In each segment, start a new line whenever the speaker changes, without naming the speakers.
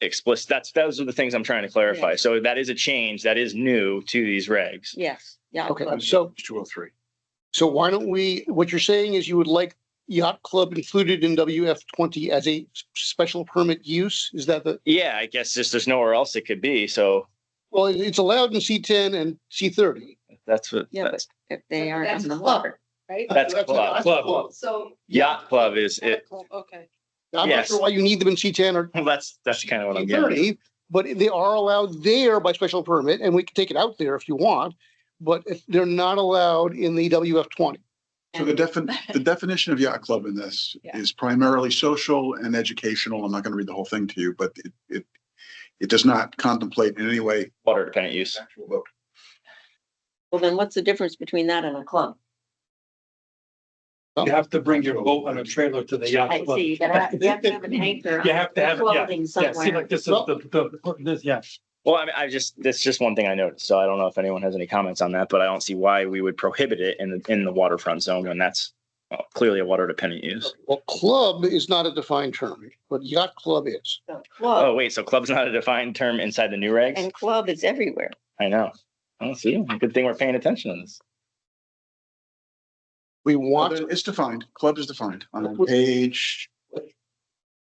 explicit. That's, those are the things I'm trying to clarify.
Yeah.
So that is a change that is new to these regs.
Yes, yeah.
Okay,
but-
so,
It's two oh three.
so why don't we, what you're saying is you would like yacht club included in WF twenty as a s- special permit use? Is that the,
Yeah, I guess just there's nowhere else it could be. So
well, it- it's allowed in C ten and C thirty.
that's what,
Yeah,
that's,
but if they aren't
That's
on the
club,
hook.
Right?
That's club.
So.
yacht club is it.
Okay.
I'm not
Yes.
sure why you need them in C ten or
Well, that's, that's kind of what I'm
C
getting. at.
thirty, but they are allowed there by special permit and we can take it out there if you want. But if they're not allowed in the WF twenty.
So the defin, the definition of yacht club in this
Yeah.
is primarily social and educational. I'm not going to read the whole thing to you, but it, it, it does not contemplate in any way.
Water dependent use.
actual vote.
Well, then what's the difference between that and a club?
You have to bring your boat on a trailer to the yacht
I
club.
see, you gotta have, you have to have an anchor.
You have to have it, yeah.
Clothing
Yeah, see,
somewhere.
like this is the, the, this, yeah.
Well, I mean, I just, that's just one thing I noticed. So I don't know if anyone has any comments on that, but I don't see why we would prohibit it in, the in the waterfront zone when that's uh, clearly a water dependent use.
Well, club is not a defined term, but yacht club is.
So Club,
Oh, wait, so club's not a defined term inside the new regs?
and club is everywhere.
I know. Oh, see, good thing we're paying attention to this.
We
Well,
want
there- It's defined, club is defined on page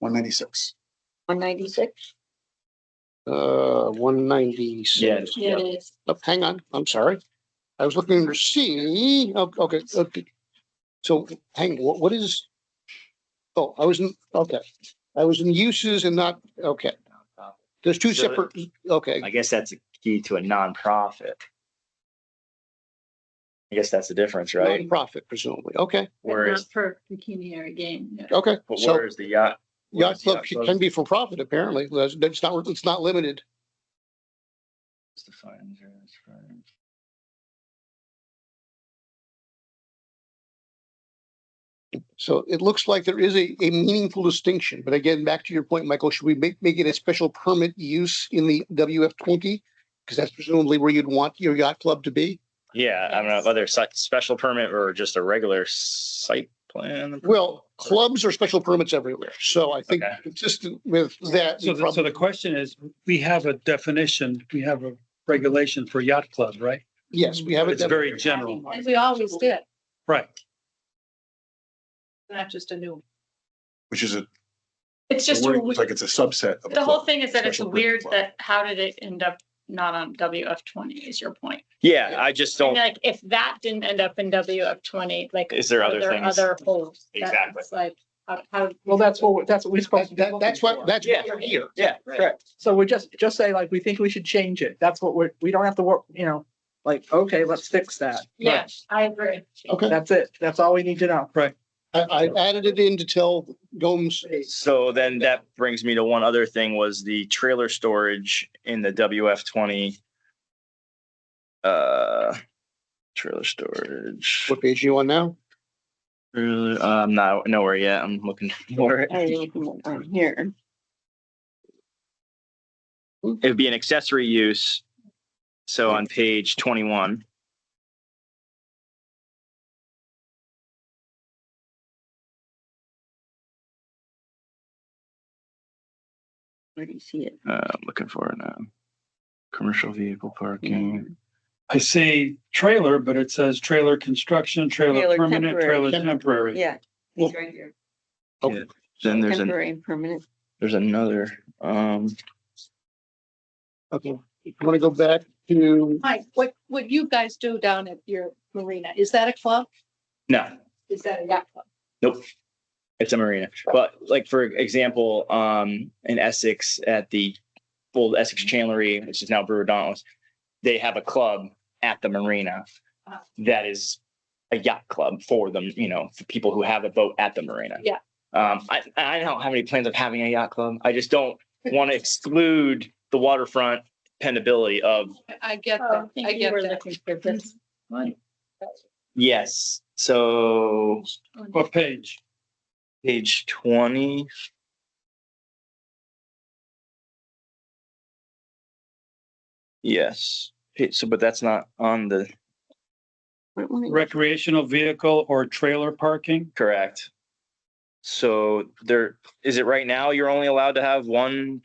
one ninety-six.
One ninety-six?
Uh, one ninety-six.
Yeah. Yeah,
it is.
Oh, Hang on, I'm sorry. I was looking under C. Oh, Okay, okay. So hang, what, what is? Oh, I was in, okay. I was in uses and not, okay. There's two
So that-
separate, okay,
I guess that's a key to a nonprofit. I guess that's the difference, right?
nonprofit presumably. Okay,
Whereas,
For bikini area game.
okay.
but
So
where's the yacht?
yacht
where's the
club can be for profit apparently. That's, that's not, it's not limited.
It's defined here, it's fine.
So it looks like there is a, a meaningful distinction, but again, back to your point, Michael, should we make, make it a special permit use in the WF twenty? Because that's presumably where you'd want your yacht club to be.
Yeah, I don't know,
Yes.
whether it's site- special permit or just a regular site plan.
Well, clubs are special permits everywhere, so I think
Okay.
consistent with that.
So, the- so the question is, we have a definition, we have a regulation for yacht club, right?
Yes, we have it.
It's very general,
As we always did,
right?
not just a new.
Which is a,
It's
it's
just, a w-
like it's a subset of.
the whole
club.
thing is that it's
special permit
weird
club.
that, how did it end up not on WF twenty is your point?
Yeah, I just
And
don't,
like, if that didn't end up in WF twenty, like.
Is there
are
other things?
Other holes. that
Exactly.
it's Like, how- how,
Well, that's what, that's what we're supposed to
That,
be
that-
looking
that's what,
for.
that's
Yeah.
what you're here.
yeah, correct.
So we're just, just say like, we think we should change it. That's what we're, we don't have to work, you know, like, okay, let's fix that.
yeah, I agree.
Okay,
That's it. That's all we need to know.
I, I added it in to tell Gomes,
So then that brings me to one other thing was the trailer storage in the WF twenty. Uh, trailer storage.
what page are you on now?
Trailer- uh, I'm not nowhere yet. I'm looking for it.
I didn't even- I'm here.
It'd be an accessory use. So on page twenty-one.
Where do you see it?
Uh, I'm looking for it now. Commercial vehicle parking.
I say trailer, but it says trailer construction, trailer
Trailer
permanent,
temporary.
trailer temporary.
Yeah. It's right here.
Then there's an,
Temporary and permanent.
there's another, um,
Okay, I want to go back to,
Mike, what, what you guys do down at your marina, is that a club?
no,
Is that a yacht club?
it's a marina. But like, for example, um, in Essex at the old Essex
Mm-hmm.
Chandlery, which is now Brewer Dauntless, they have a club at the marina
Ah.
that is a yacht club for them, you know, for people who have a boat at the marina.
Yeah.
Um, I, I don't have any plans of having a yacht club. I just don't want to exclude the waterfront dependability of
I- I get
Oh, I
that, I
think you
get
were
that.
looking for this one.
Yes, so
What page?
page twenty. Yes, Pa- so but that's not on the
What one is it?
Recreational vehicle or trailer parking?
correct. So there, is it right now you're only allowed to have one